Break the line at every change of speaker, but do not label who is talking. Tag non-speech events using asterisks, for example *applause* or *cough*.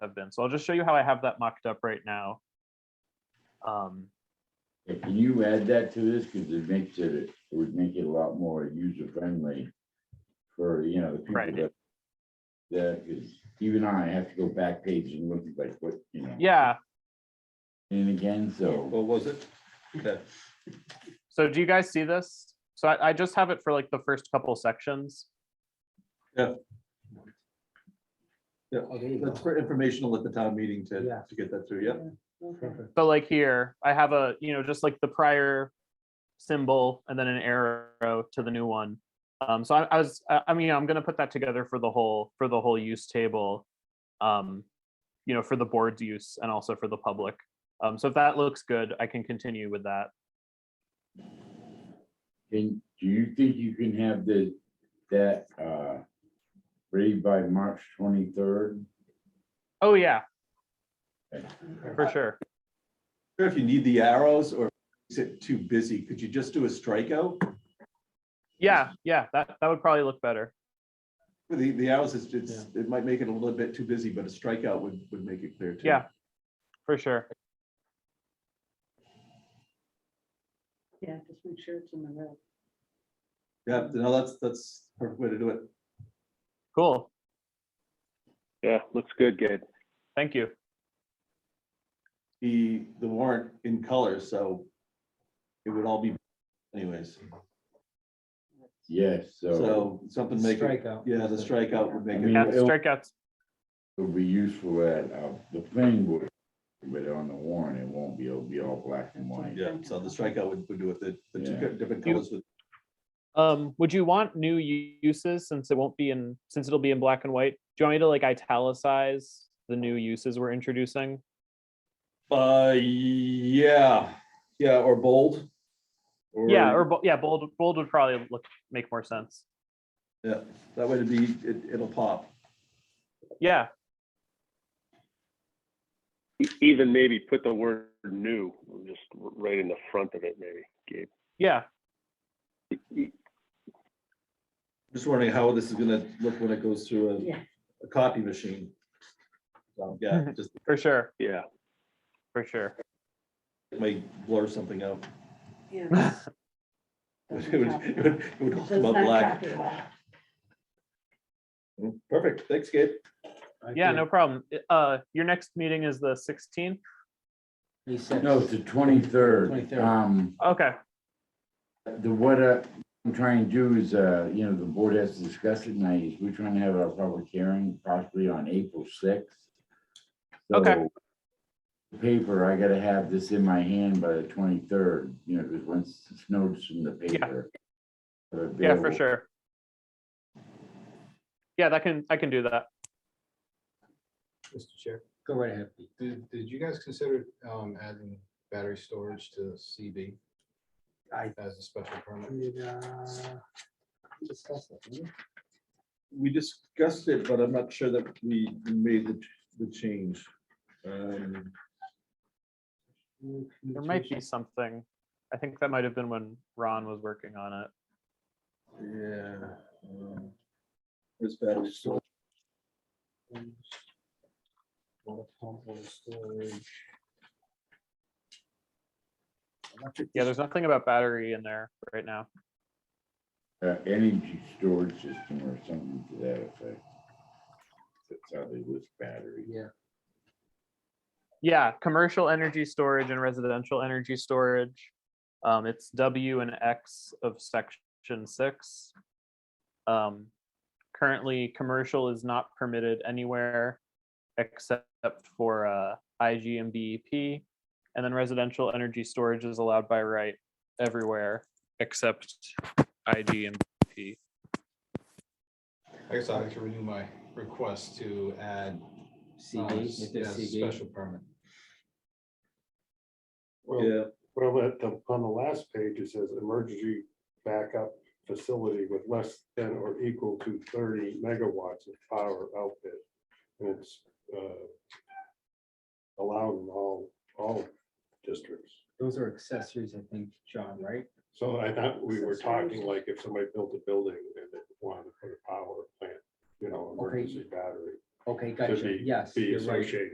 have been. So I'll just show you how I have that mocked up right now. Um,
Yeah, Can you add that to this? Because it makes it, it would make it a lot more user friendly for, you know, the
Right.
people that. That, because even I have to go back page and look at like what, you know,
yeah.
and again, so.
What was it? Okay.
So do you guys see this? So I, I just have it for like the first couple sections.
Yeah, that's for informational at the town meeting to,
Yeah.
to get that through, yeah.
Perfect.
So like here, I have a, you know, just like the prior symbol and then an arrow to the new one. Um, so I, I was, I, I mean, I'm gonna put that together for the whole, for the whole use table. Um, you know, for the board's use and also for the public. Um, so if that looks good, I can continue with that.
Can, do you think you can have the, that, uh, ready by March twenty-third?
Oh, yeah, for sure.
Sure, If you need the arrows or is it too busy, could you just do a strikeout?
Yeah, yeah, that, that would probably look better.
With The, the arrows is, it's, it might make it a little bit too busy, but a strikeout would, would make it clear too.
Yeah, for sure.
Yeah, just make sure it's in the red.
Yeah, no, that's, that's a perfect way to do it.
Cool.
Yeah, looks good, Gabe.
Thank you.
The, the warrant in color, so it would all be anyways.
Yes, so
So something make, it-
Strikeout.
yeah, the strikeout would make it.
Yeah,
Yeah, it'll-
strikeouts.
it'll be useful at, uh, the planning board, but on the warrant, it won't be, it'll be all black and white.
Yeah, so the strikeout would, would do it, the, the two
Yeah.
different
You-
colors would,
Um, would you want new u- uses since it won't be in, since it'll be in black and white? Do you want me to like italicize the new uses we're introducing?
uh, yeah, yeah, or bold.
Yeah, or, bo- yeah, bold, bold would probably look, make more sense.
Yeah, that way it'd be, it, it'll pop.
Yeah,
E- Even maybe put the word new, just r- right in the front of it, maybe, Gabe.
yeah,
Just wondering how this is gonna look when it goes through
Yeah.
a, a copy machine. Um, Yeah, just
for sure,
Yeah,
for sure.
it may blur something out. *laughs*
Yeah.
It would,
Doesn't
it would, it would all come
copy- does
out
not
black. Mm-hmm.
copy well.
Perfect, thanks, Gabe.
Yeah, no problem. I- Uh, your next meeting is the sixteenth?
No, it's the twenty-third.
23rd.
Um,
Okay,
the, what uh, I'm trying to do is, uh, you know, the board has to discuss it tonight, is we're trying to have our public hearing possibly on April sixth.
Okay.
Paper, I gotta have this in my hand by the twenty-third, you know, because once it's noticed in the paper.
yeah, for sure. Yeah, that can, I can do that.
Mr. Chair, go right ahead. Pete.
Did, did you guys consider um, adding battery storage to CB
I-
as a special permit?
Did, uh, we discuss that, didn't
We
we?
discussed it, but I'm not sure that we made the, the change. Um,
There might be something. I think that might have been when Ron was working on it.
Yeah. um, This battery storage.
Water pump, water storage. Electric
Yeah, there's nothing about battery in there right now.
Uh, energy storage system or something to that effect. That's how they list battery.
Yeah.
Yeah, commercial energy storage and residential energy storage. Um, it's W and X of section six. Um, currently, commercial is not permitted anywhere except for uh, IG and BEP. And then residential energy storage is allowed by right everywhere except IG and E BEP.
I guess I'd like to renew my request to add. uh,
CB, if
yeah,
there's CB.
Special permit.
Well,
Yeah,
well, at the, on the last page, it says emergency backup facility with less than or equal to thirty megawatts of power output. And it's uh, allowed in all, all districts.
Those are accessories, I think, John, right?
So I thought we were talking like if somebody built a building and they wanted to put a power plant, you know,
Okay.
emergency battery.
Okay,
to
gotcha.
be-
Yes,
be
you're right.
associated.